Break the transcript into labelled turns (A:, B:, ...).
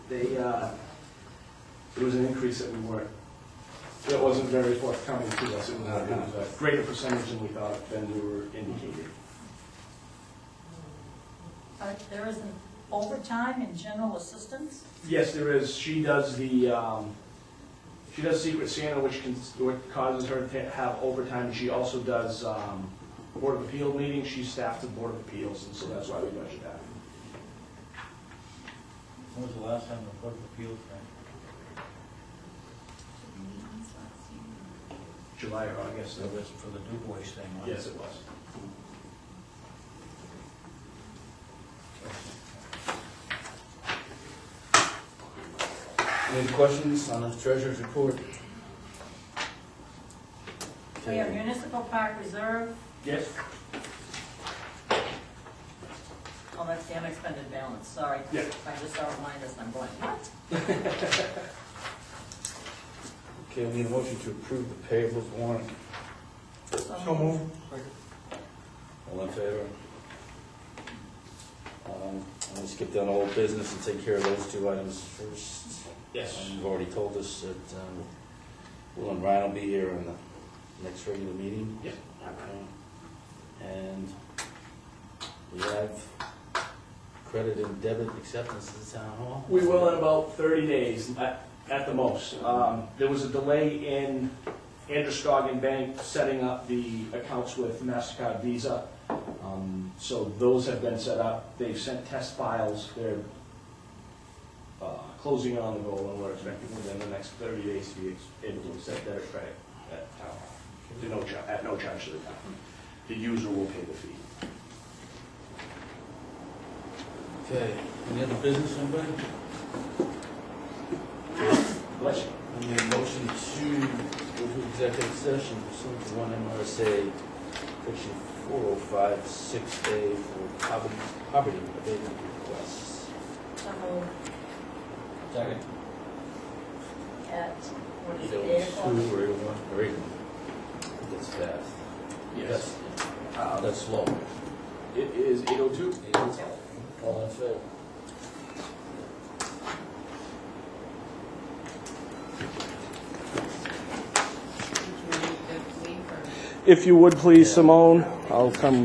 A: they, uh, it was an increase that we weren't, that wasn't very forthcoming to us. It was a- it was a greater percentage than we thought, than we were indicated.
B: Uh, There isn't overtime and general assistance?
A: Yes, there is. She does the, um, she does Secret Santa, which can, which causes her to have overtime. She also does, um, Board of Appeal meetings. She staffed the Board of Appeals, and so that's why we budget that.
C: When was the last time the Board of Appeals met?
A: July or August,
C: It was for the DuBois thing, wasn't it?
A: yes, it was.
D: Any questions on the treasurer's report?
B: We have municipal park reserve,
A: Yes?
B: oh, that's the unexpended balance, sorry.
A: Yeah.
B: I just saw a minus, I'm going, what?
D: Okay, we need a motion to approve the payables warrant.
B: So moved.
D: All in favor? Um, I'm gonna skip down all business and take care of those two items first. Um, You've already told us that um, Will and Ryan will be here in the next regular meeting.
A: Yep.
D: Okay. And we have credit and debit acceptance at the town hall.
A: We will in about 30 days, at at the most. Um, There was a delay in Androscoggin Bank setting up the accounts with MasterCard Visa. Um, So those have been set up. They've sent test files. They're uh, closing on the goal, and we're expecting within the next 30 days to be able to accept debit credit at town hall, To no cha- at no charge to the town. The user will pay the fee.
D: Okay, any other business, anybody?
A: Bless you.
D: I need a motion to go to executive session pursuant to one MRSA, section four oh five, six A for poverty, poverty abatement requests.
B: So moved
C: Second.
B: at, what is
D: Bill
B: it, eight o'clock?
D: Two or eight one, or eight one. That's fast.
A: Yes.
D: That's- Uh, that's slow.
A: It is 8:02.
D: All in favor?
E: Did you leave the leave or?
A: If you would please, Simone, I'll come